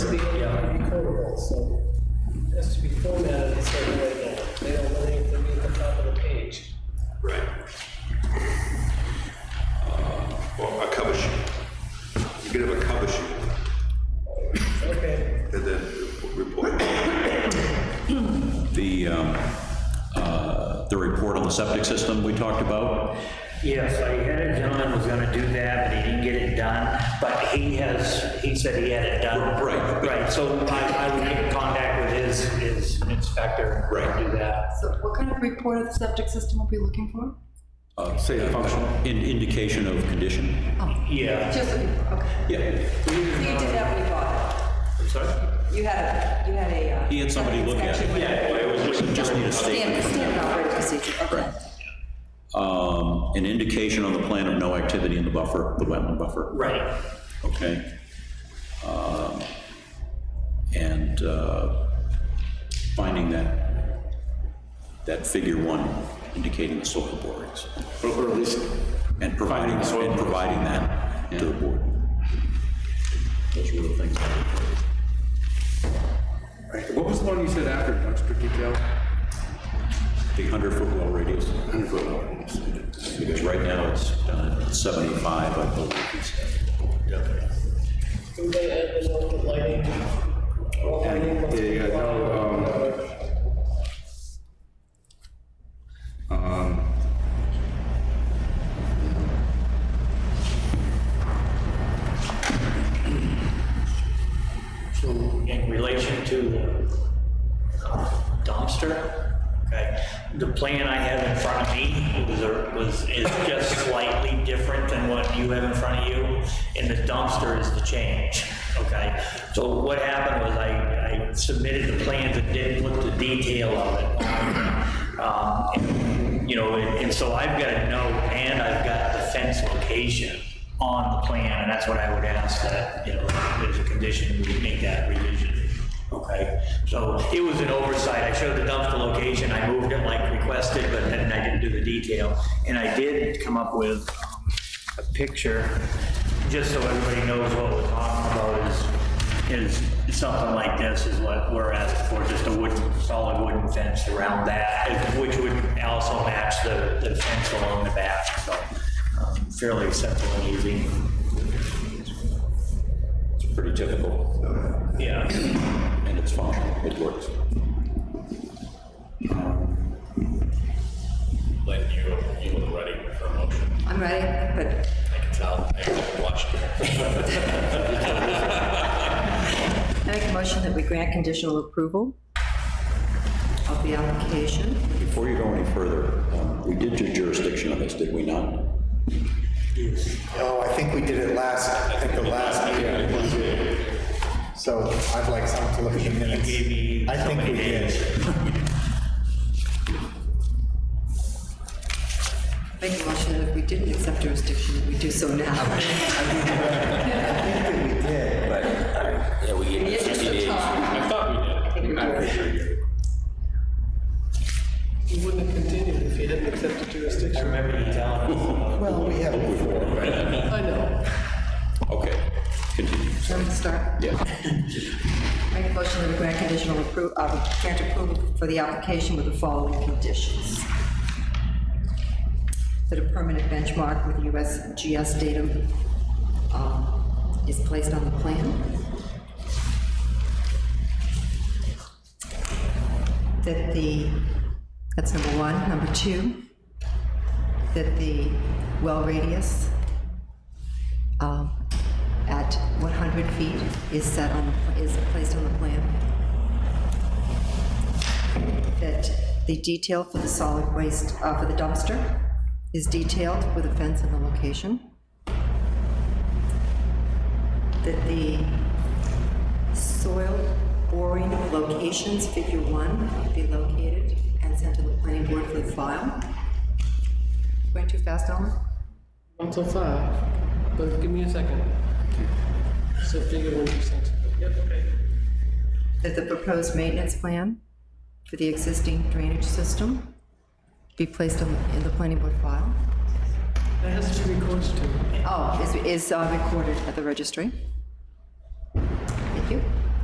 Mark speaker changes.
Speaker 1: report on um, uh, the septic system we talked about.
Speaker 2: Yes, I had a gentleman was gonna do that, but he didn't get it done, but he has, he said he had it done.
Speaker 1: Right.
Speaker 2: Right, so I, I would get in contact with his, his inspector. and
Speaker 1: Right.
Speaker 2: Do that.
Speaker 3: So what kind of report of the septic system will be looking for?
Speaker 1: Say a functional. Uh, Indication of condition.
Speaker 2: Yeah.
Speaker 3: Just, looking for- okay.
Speaker 1: Yeah.
Speaker 3: So you Oh. did have what you bought? You had a, you had a. uh,
Speaker 1: He had somebody look at
Speaker 3: inspection.
Speaker 1: it. Yeah. Just need a
Speaker 3: Standard,
Speaker 1: statement.
Speaker 3: standard operating procedure, okay.
Speaker 1: Um, An indication on the plan of no activity in the buffer, the wetland buffer.
Speaker 2: Right.
Speaker 1: Okay? Um, And uh, finding that, that figure one indicating the soil borings.
Speaker 4: Or or at least,
Speaker 1: And providing,
Speaker 4: Finding soil
Speaker 1: and providing that to the board. Those were the things.
Speaker 4: what was the one you said after, extra detail?
Speaker 1: The 100-foot well radius. 100-foot well radius. Because right now it's done at 75, I believe.
Speaker 5: Do they add the local lighting? Well, lighting must be
Speaker 4: Yeah, no, um, um,
Speaker 2: in relation to the dumpster, okay, the plan I have in front of me was, a- was, is just slightly different than what you have in front of you, and the dumpster is the change, okay? So what happened was I, I submitted the plans and didn't put the detail of it. Um, and, You know, and and so I've got a note and I've got the fence location on the plan, and that's what I would ask that, you know, as a condition, we make that revision. Okay, so it was an oversight. I showed the dumpster location, I moved it like requested, but then I didn't do the detail. And I did come up with um, a picture, just so everybody knows what we're talking about is, is something like this is what we're asking for, just a wooden, solid wooden fence around that, which would also match the, the fence along the back, so um, fairly simple and easy.
Speaker 1: It's pretty typical.
Speaker 2: Yeah.
Speaker 1: and it's functional, it works. Um,
Speaker 6: Lynn, you, you look ready for a motion.
Speaker 3: I'm ready, but
Speaker 6: I can tell. I watched you.
Speaker 3: I make a motion that we grant conditional approval of the application.
Speaker 1: Before you go any further, um, we did do jurisdiction on this, did we not?
Speaker 7: Oh, I think we did it last, I think the last meeting. So I'd like some to look at the minutes.
Speaker 2: gave me
Speaker 7: I
Speaker 2: so
Speaker 7: think
Speaker 2: many
Speaker 7: we did.
Speaker 3: Make a motion that if we didn't accept jurisdiction, that we do so now.
Speaker 6: Yeah, we
Speaker 3: In the interest of time.
Speaker 6: I thought we did. I'm pretty sure you did.
Speaker 5: You wouldn't have continued if you hadn't accepted jurisdiction.
Speaker 2: Remember you telling us.
Speaker 7: Well, we have before.
Speaker 5: I know.
Speaker 1: Okay, continue.
Speaker 3: Shall we start? Yeah. Make a motion that we grant conditional approval, uh, grant approval for the application with the following conditions. That a permanent benchmark with USGS datum, um, is placed on the plan. That the, that's number one. Number two, that the well radius um, at 100 feet is set on, the pl- is placed on the plan. That the detail for the solid waste, uh, for the dumpster is detailed with a fence and the location. That the soil boring locations, figure one, be located and sent to the planning board for the file. Went too fast, Ellen?
Speaker 5: One till five, but give me a second. So figure one percent. Yep, okay.
Speaker 3: that the proposed maintenance plan for the existing drainage system be placed on- in the planning board file.
Speaker 5: That has to be recorded too.
Speaker 3: Oh, is is uh, recorded at the registry. Thank you.